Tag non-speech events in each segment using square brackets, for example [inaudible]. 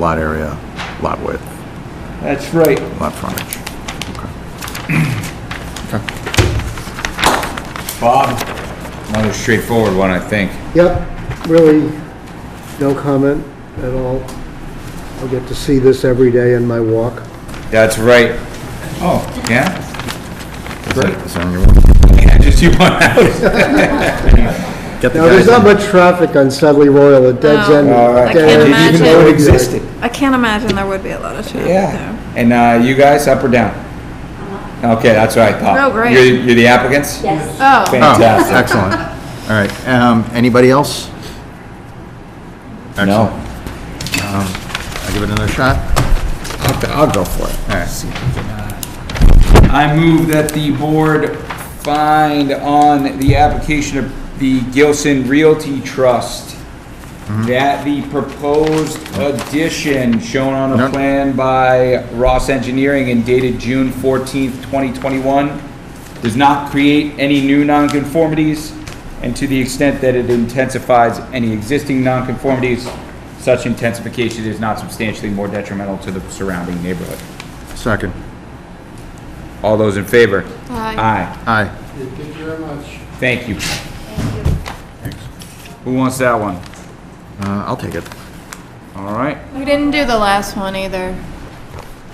lot area, lot width, That's right. lot frontage. Okay. Bob? Another straightforward one, I think. Yep, really, no comment at all. I get to see this every day in my walk. That's right. Oh, yeah? Is that- is that on your one? [laughs] Yeah, just you one. Get the Now, there's guys, not much traffic on Sudley Royal, it dead No. end. All right. I dead can't end. imagine. Even though it existed. I can't imagine there would be a lot of traffic Yeah. there. And uh, you guys, up or down? Okay, that's what I thought. Oh, great. You're you're the applicants? Yes. Oh, oh, Fantastic. excellent. All right, um, anybody else? No. Excellent. I'll give it another shot. I'll, I'll go for it. All right. I move that the board find on the application of the Gilson Realty Trust that the proposed addition shown on No. a plan by Ross Engineering and dated June fourteenth, twenty twenty-one does not create any new nonconformities and to the extent that it intensifies any existing nonconformities, such intensification is not substantially more detrimental to the surrounding neighborhood. Second. All those in favor? Aye. Aye. Aye. Thank you. Who wants that one? Uh, I'll take it. All right. we didn't do the last one either.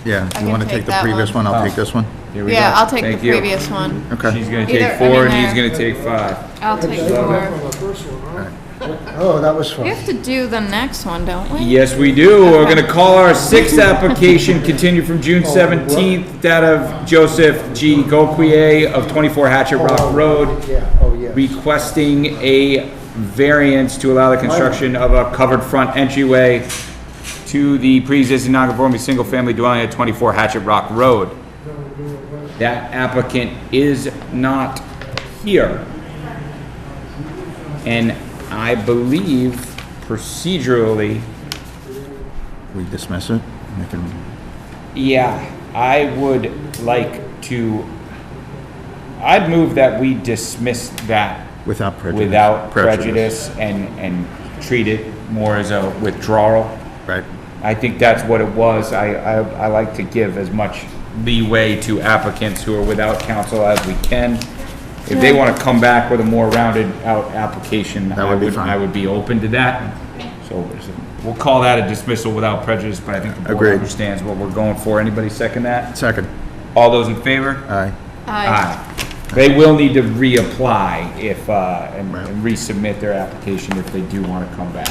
Yeah, I you can want to take take the that previous one. one, I'll Oh. take this one? Here we go. Yeah, I'll take the Thank you. previous one. She's Okay. gonna Either- take four I and mean, he's there. gonna take five. I'll take four. [laughs] Oh, that was We fun. have to do the next one, don't we? Yes, we do. We're [laughs] gonna call our sixth application continued from June seventeenth, that of Joseph G. Goquier of twenty-four Hatchet Rock Road, Yeah, oh, yeah. requesting a variance to allow the construction of a covered front entryway to the pre-existing non-conforming single-family dwelling at twenty-four Hatchet Rock Road. That applicant is not here. And I believe procedurally, We dismiss it? We can- yeah, I would like to, I'd move that we dismiss that Without prejudice. without prejudice and, and treat it more as a withdrawal. Right. I think that's what it was. I, I, I like to give as much leeway to applicants who are without counsel as we can. If they want to come back with a more rounded out application, That I would be would, fine. I would be open to that. So we'll call that a dismissal without prejudice, but I think the board Agreed. understands what we're going for. Anybody second that? Second. All those in favor? Aye. Aye. They will need to reapply if, uh, and Right. and resubmit their application if they do want to come back.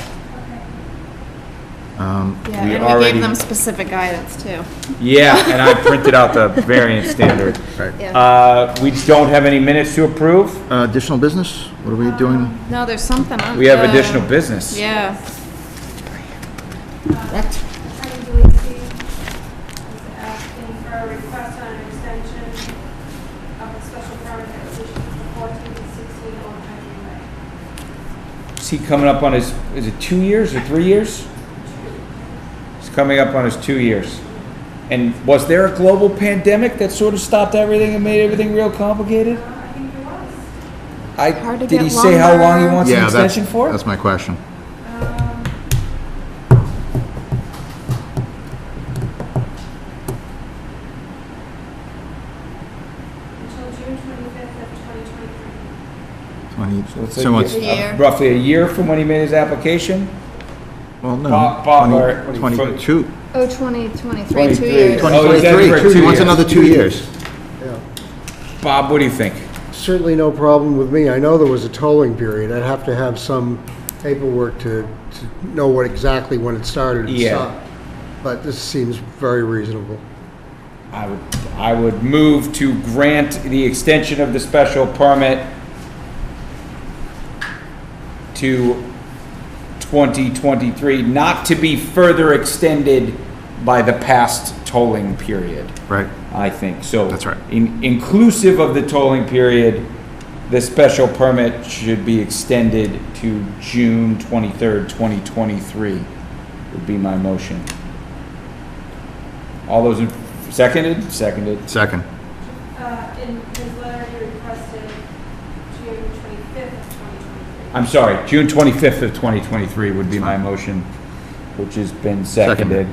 Yeah, we and we already- gave them specific guidance too. Yeah, and I printed out the variance standard. Right. Yeah. Uh, We don't have any minutes to approve. Uh, Additional business? What are we doing? No, there's something on. We have the- additional business. Yeah. Attorney Delisi is asking for a request on an extension of the special permit application for 14 and 16 Old Country Way. Is he coming up on his, is it two years or three years? He's coming up on his two years. And was there a global pandemic that sort of stopped everything and made everything real complicated? I, Hard to did he get say how long he lumber. wants an Yeah, that's- extension for? That's my question. Until June 25th of 2023. Twenty- it's a So it's, year- it's- Year. Roughly a year from when he made his application? well, no. Bob- Bob, twenty- or- what do you- Twenty-two. Oh, twenty, twenty-three, two 23. years. Oh, he's done it for 2023. two He wants years. another two years. Yeah. Bob, what do you think? Certainly no problem with me. I know there was a tolling period. I'd have to have some paperwork to, to know what exactly when it started and Yeah. stopped. But this seems very reasonable. I would, I would move to grant the extension of the special permit to 2023, not to be further extended by the past tolling period, Right. I think, so. That's right. In, inclusive of the tolling period, the special permit should be extended to June 23rd, 2023, would be my motion. All those in, seconded? Seconded. Second. Uh, In his letter, he requested June 25th of 2023. I'm sorry, June 25th of 2023 would be my motion. which has been seconded.